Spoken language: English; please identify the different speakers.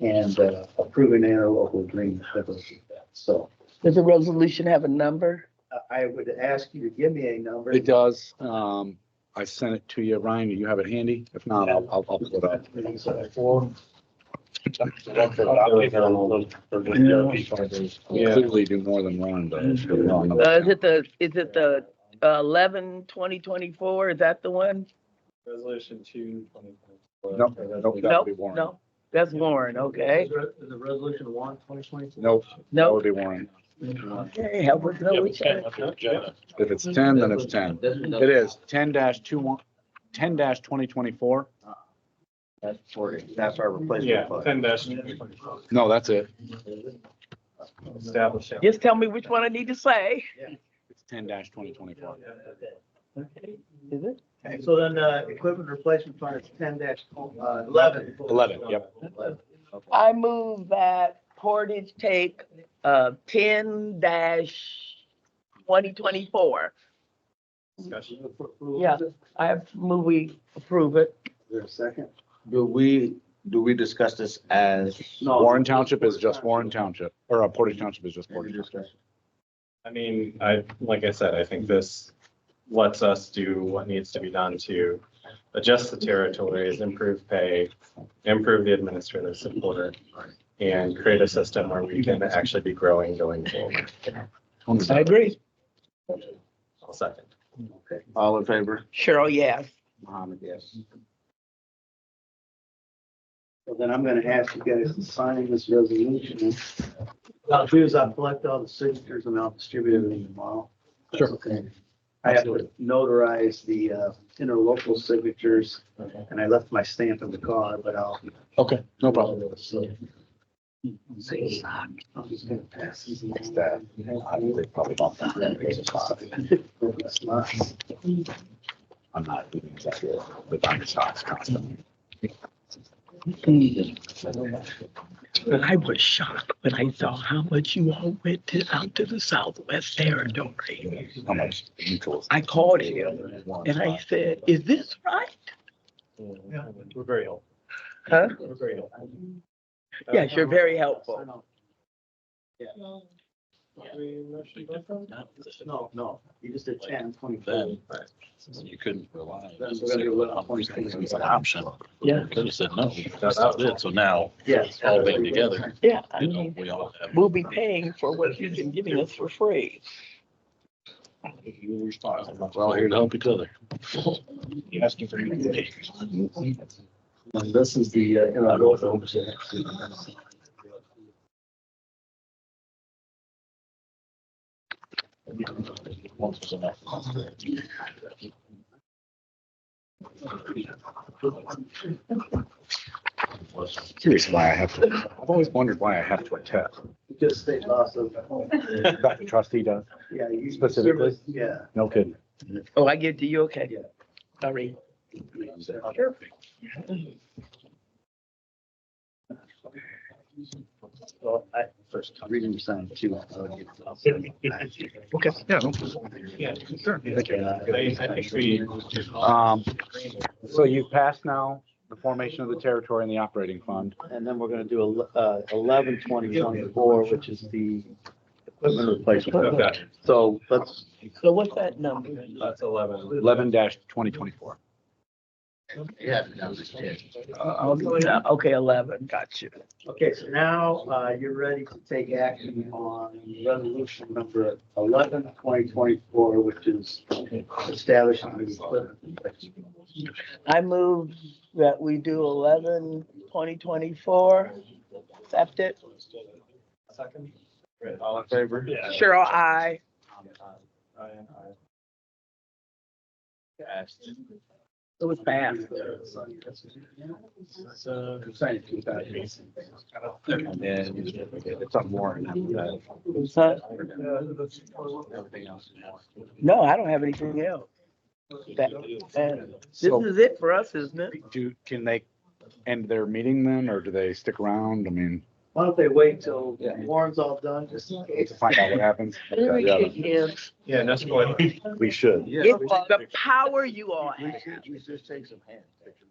Speaker 1: and uh, approving interlocal agreement with us. So
Speaker 2: Does the resolution have a number?
Speaker 1: I- I would ask you to give me a number.
Speaker 3: It does. Um, I sent it to you, Ryan. Do you have it handy? If not, I'll, I'll, I'll pull it up. We clearly do more than Ron does.
Speaker 2: Uh, is it the, is it the uh, eleven twenty twenty-four? Is that the one?
Speaker 4: Resolution two twenty.
Speaker 3: Nope, nope, that would be Warren.
Speaker 2: No, that's Warren, okay.
Speaker 4: The resolution one twenty twenty.
Speaker 3: Nope, that
Speaker 2: No,
Speaker 3: would be Warren.
Speaker 2: okay, help us know which one.
Speaker 3: If it's ten, then it's ten. It is ten dash two one, ten dash twenty twenty-four.
Speaker 1: That's for, that's our
Speaker 4: Yeah,
Speaker 1: replacement fund.
Speaker 4: ten dash.
Speaker 3: No, that's it.
Speaker 4: Establish.
Speaker 2: Just tell me which one I need to say.
Speaker 3: It's ten dash twenty twenty-four.
Speaker 2: Is it?
Speaker 1: Okay, So then uh, equipment replacement fund is ten dash uh, eleven.
Speaker 3: Eleven, yep.
Speaker 2: I move that Portage take, uh, ten dash twenty twenty-four. Yeah, I move we approve it.
Speaker 1: Is there a second?
Speaker 5: Do we, do we discuss this as,
Speaker 1: No.
Speaker 3: Warren Township is just Warren Township, or uh, Portage Township is just Portage. Township.
Speaker 4: I mean, I, like I said, I think this lets us do what needs to be done to adjust the territories, improve pay, improve the administrative support, and create a system where we can actually be growing going forward.
Speaker 2: I agree.
Speaker 4: I'll second.
Speaker 1: Okay.
Speaker 5: all in favor?
Speaker 2: Cheryl, yes.
Speaker 5: Mohammed, yes.
Speaker 1: So then I'm gonna ask you guys to sign this resolution. What I'll do is I'll collect all the signatures and I'll distribute them tomorrow.
Speaker 3: Sure.
Speaker 1: Okay. I have to notarize the uh, interlocal signatures and I left my stamp in the car, but I'll.
Speaker 3: Okay, no problem.
Speaker 1: So- I'm just gonna pass these next time.
Speaker 3: They probably don't think that it's a five.
Speaker 1: That's mine.
Speaker 3: I'm not doing exactly the buying stocks constantly.
Speaker 6: And I was shocked when I saw how much you all went to, out to the Southwest Territory.
Speaker 3: How much mutuals?
Speaker 6: I called him and I said, is this right?
Speaker 4: We're very helpful.
Speaker 2: Huh?
Speaker 4: We're very helpful.
Speaker 2: Yes, you're very helpful.
Speaker 1: No, no, you just did ten, twenty.
Speaker 7: Then you couldn't rely.
Speaker 1: That's what I'm gonna do.
Speaker 7: It's an option.
Speaker 2: Yeah.
Speaker 7: Could have said no. That's not it. So now,
Speaker 1: Yes.
Speaker 7: all linked together.
Speaker 2: Yeah, I
Speaker 7: you know,
Speaker 2: mean,
Speaker 7: we all have.
Speaker 2: we'll be paying for what you've been giving us for free.
Speaker 7: You're responsible. We're all here to help each other. You're asking for your
Speaker 1: And This is the, uh, interlocal.
Speaker 7: Once was enough.
Speaker 3: Curious why I have to, I've always wondered why I have to attest.
Speaker 1: Just state laws of,
Speaker 3: Dr. Trustee does,
Speaker 1: yeah. you-
Speaker 3: Specifically?
Speaker 1: Yeah.
Speaker 3: no kidding.
Speaker 2: Oh, I give it to you, okay?
Speaker 1: Yeah.
Speaker 2: Sorry.
Speaker 1: Well, I first reading the sign too.
Speaker 3: Okay, yeah.
Speaker 4: Yeah. I, I think
Speaker 3: no-
Speaker 4: we.
Speaker 3: Um, so you passed now the formation of the territory and the operating fund.
Speaker 1: And then we're gonna do ele- uh, eleven twenty twenty-four, which is the equipment replacement.
Speaker 4: Okay,
Speaker 1: So let's,
Speaker 2: So what's that number?
Speaker 4: That's eleven.
Speaker 3: Eleven twenty twenty-four.
Speaker 5: Yeah. that was it.
Speaker 2: Uh, Okay, eleven, got you.
Speaker 1: okay, so now, uh, you're ready to take action on resolution number eleven twenty twenty-four, which is establishing the equipment. replacement.
Speaker 2: I move that we do eleven twenty twenty-four. Accept it.
Speaker 4: Second.
Speaker 5: All in favor?
Speaker 4: Yeah.
Speaker 2: Cheryl, I.
Speaker 5: Passed.
Speaker 2: It was fast.
Speaker 1: So. Sign it to that.
Speaker 5: And then it's on Warren. after that.
Speaker 2: Huh?
Speaker 5: Everything else is Warren.
Speaker 2: No, I don't have anything else. That- and This
Speaker 3: So
Speaker 2: is it for us, isn't it?
Speaker 3: do, can they end their meeting then, or do they stick around? I mean,
Speaker 1: Why don't they wait till
Speaker 5: Yeah.
Speaker 1: Warren's all done, just in
Speaker 3: to
Speaker 1: case?
Speaker 3: find out what happens? Okay, yeah,
Speaker 4: Yeah, that's what.
Speaker 3: We should.
Speaker 5: Yeah.
Speaker 2: It's the power you all have.
Speaker 5: We should- we should take some hands.